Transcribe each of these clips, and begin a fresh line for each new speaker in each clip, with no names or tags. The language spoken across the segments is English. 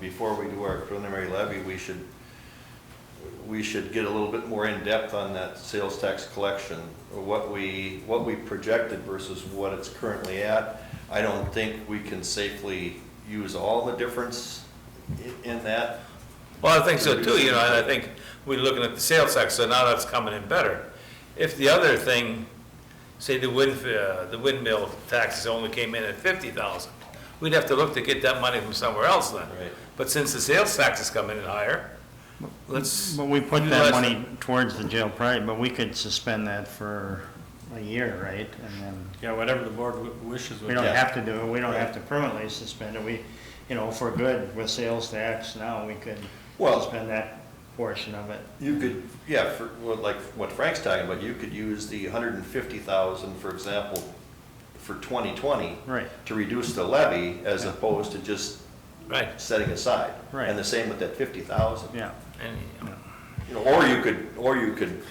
before we do our preliminary levy, we should, we should get a little bit more in-depth on that sales tax collection, what we, what we projected versus what it's currently at. I don't think we can safely use all the difference i- in that.
Well, I think so too, you know, and I think we're looking at the sales tax, so now that's coming in better. If the other thing, say the wind, uh, the windmill taxes only came in at fifty thousand, we'd have to look to get that money from somewhere else then.
Right.
But since the sales tax is coming in higher, let's.
But we put
utilize
that money towards the jail project, but we could suspend that for a year, right? And then,
Yeah, whatever the board wi- wishes
we
with
don't
Yeah.
have to do it, we don't have to permanently suspend it, we, you know, if we're good with sales tax now, we could
Well-
suspend that portion of it.
You could, yeah, for, well, like what Frank's talking about, you could use the hundred and fifty thousand, for example, for twenty twenty.
Right.
To reduce the levy as opposed to just
Right,
setting aside.
Right.
And the same with that fifty thousand.
Yeah,
and, you know,
You know, or you could, or you could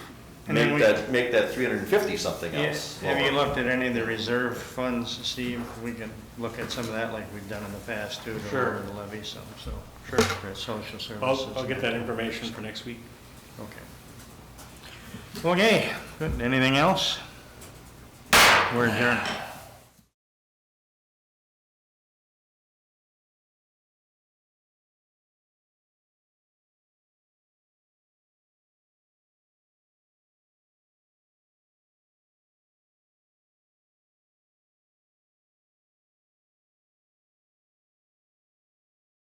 And then
make
we-
that, make that three hundred and fifty something else.
Yeah, Have you
lower.
looked at any of the reserve funds, Steve? We can look at some of that like we've done in the past too, to
Sure.
lower the levy some, so.
Sure.
For social services.
I'll, I'll get that information for next week.
Okay. Okay, good. Anything else? We're adjourned.